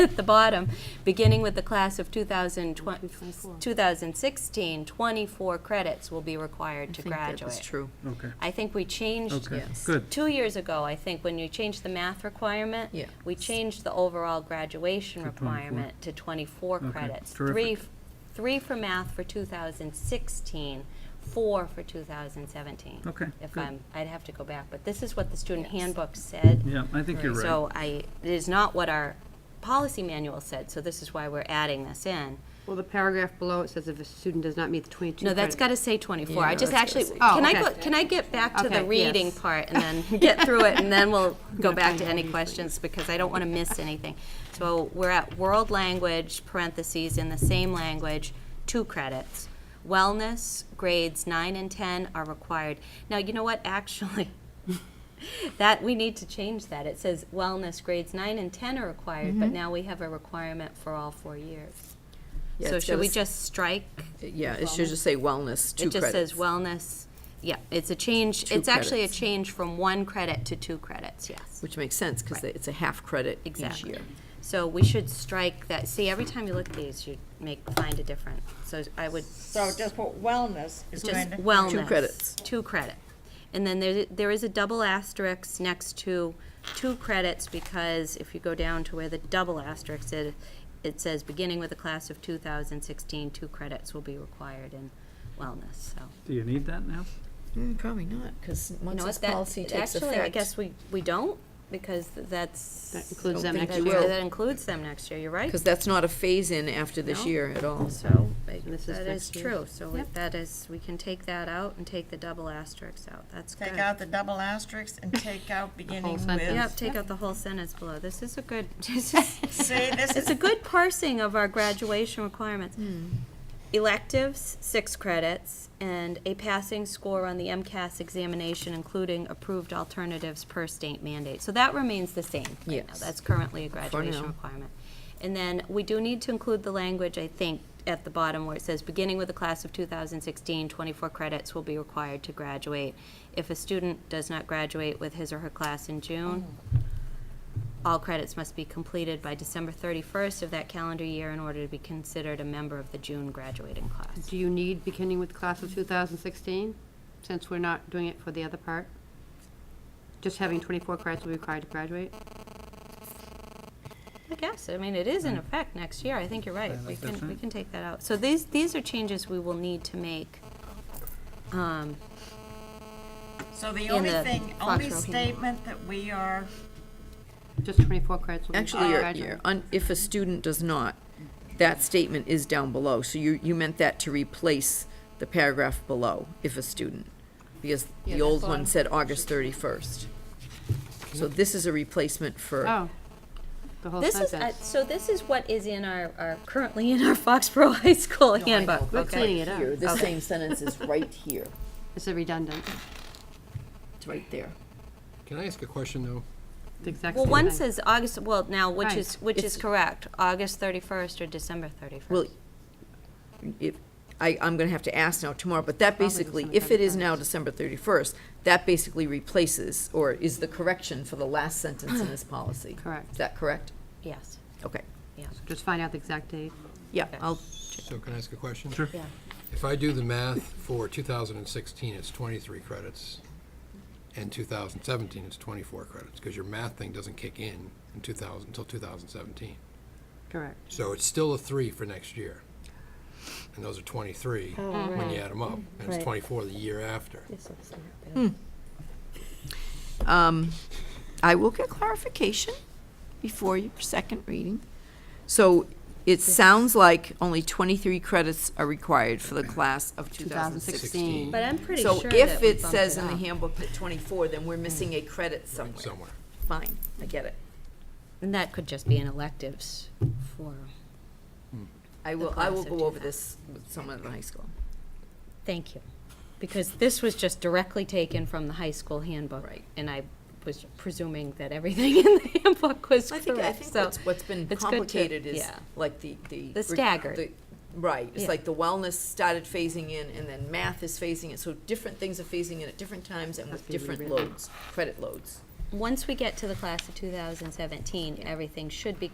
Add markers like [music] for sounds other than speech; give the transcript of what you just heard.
at the bottom, beginning with the class of 2020 2016, 24 credits will be required to I think that was graduate. true. Okay, I think we changed, okay, yes. good. two years ago, I think, when you changed the math requirement, Yeah. we changed the overall graduation To 24. requirement to 24 Okay, credits. terrific. Three, f- three for math for 2016, four for 2017. Okay, If good. I'm, I'd have to go back, but this is what the student handbook said. Yeah, I think you're right. So I, it is not what our policy manual said, so this is why we're adding this in. Well, the paragraph below, it says if a student does not meet the 22 No, that's got credit- to say 24. I Yeah, just that's actually, gotta say can Oh, I, okay. go- can I get back to the Okay, reading yes. part and [laughs] then get through it? And then we'll go back to any questions because I don't want to miss anything. So we're at world language, parentheses, in the same language, two credits. Wellness, grades 9 and 10 are required. Now, you know what, actually, [laughs] that, we need to change that. It says wellness, grades 9 and 10 are required, Mm-hmm. but now we have a requirement for all four years. Yeah, So it's should we gotta just strike s- Yeah, it should just say wellness, two it credits. just says wellness, yeah, it's a change, Two it's actually a credits. change from one credit to two credits, yes. Which makes sense, because Right. it's a half credit each year. Exactly. So we should strike that, see, every time you look at these, you make, find a different, so I would, So just put wellness is just going to. wellness. credits. Two credit. And then there, there is a double asterisk next to two credits, because if you go down to where the double asterisk is, it says, beginning with the class of 2016, two credits will be required in wellness, so. Do you need that now? Mm, Probably not, because You once know this what, that- policy takes effect. Actually, I guess we, we don't, because th- that's. That includes them next that- year. That includes them next year, you're right. Because that's not a phase-in after No. this year at all. So, I- This is that is next year. true, so we- that is, we can take that out and take the double asterisks out, that's good. Take out the double asterisks and take out beginning with. sentence. Yep, take out the whole sentence below, this is a good, [laughs] this [laughs] is, See, this it's a is, good parsing of our graduation requirements. Hmm. Electives, six credits, and a passing score on the MCAS examination, including approved alternatives per state mandate. So that remains the same right now. Yes. That's currently a graduation now. requirement. And then we do need to include the language, I think, at the bottom where it says, beginning with the class of 2016, 24 credits will be required to graduate. If a student does not graduate with his or her class in June, all credits must be completed by December 31st of that calendar year in order to be considered a member of the June graduating class. Do you need beginning with class of 2016, since we're not doing it for the other part? Just having 24 credits will be required to graduate? I guess, I mean, it is in effect next year, I think you're right. Yeah, We that's can, we different. can take that out. So these, these are changes we will need to make. Um, so the in only the thing, only Foxborough handbook. statement that we are, Just 24 credits will be Actually, required you're, to you're, un- graduate? if a student does not, that statement is down below, so you, you meant that to replace the paragraph below, if a student, because Yeah, the that's old what one I'm- said August thirty-first. So this is a replacement for, Oh, the whole This is, uh, sentence. so this is what is in our, our, currently in our Foxborough [laughs] High School handbook, We're okay? cleaning it up. here, this same sentence [laughs] is [laughs] right here, It's a redundant, it's right there. Can I ask a question, though? the exact Well, same one thing. says August, well, now, which Right. is, which is It's- correct, August 31st or December 31st? Well, if, I, I'm gonna have to ask now tomorrow, but that Probably basically, December if it is now December thirty-first, that basically replaces, or is the correction for the last sentence in [clears throat] this policy. Correct. Is that correct? Yes, Okay, yeah, Just find out the exact date. yeah, Okay. I'll, So can I ask a question? Sure. yeah. If I do the math for 2016, it's 23 credits, and 2017, it's 24 credits, because your math thing doesn't kick in in 2000, until 2017. Correct. So it's still a three for next year. And those are 23 when you add them up, and it's 24 the year after. um, I will get clarification before your second reading. So it sounds like only twenty-three credits are required for the class of two thousand sixteen. 2016. But I'm pretty sure So that if we it bumped says in the up. handbook that twenty-four, then we're missing a credit somewhere. Somewhere. Fine, I get it. And that could just be an electives for, I will, I will class of go over this with someone at the high school. thank you. Because this was just directly taken from the high school handbook. Right. And I was presuming that everything [laughs] in the handbook was I think, I correct, think so what's, what's been it's good to- complicated is yeah. like the, the. The rec- staggered. the- Right, it's Yeah. like the wellness started phasing in and then math is phasing in, so different things are phasing in at different times and with Must be different rewritten. loads, credit loads. Once we get to the class of 2017, everything should be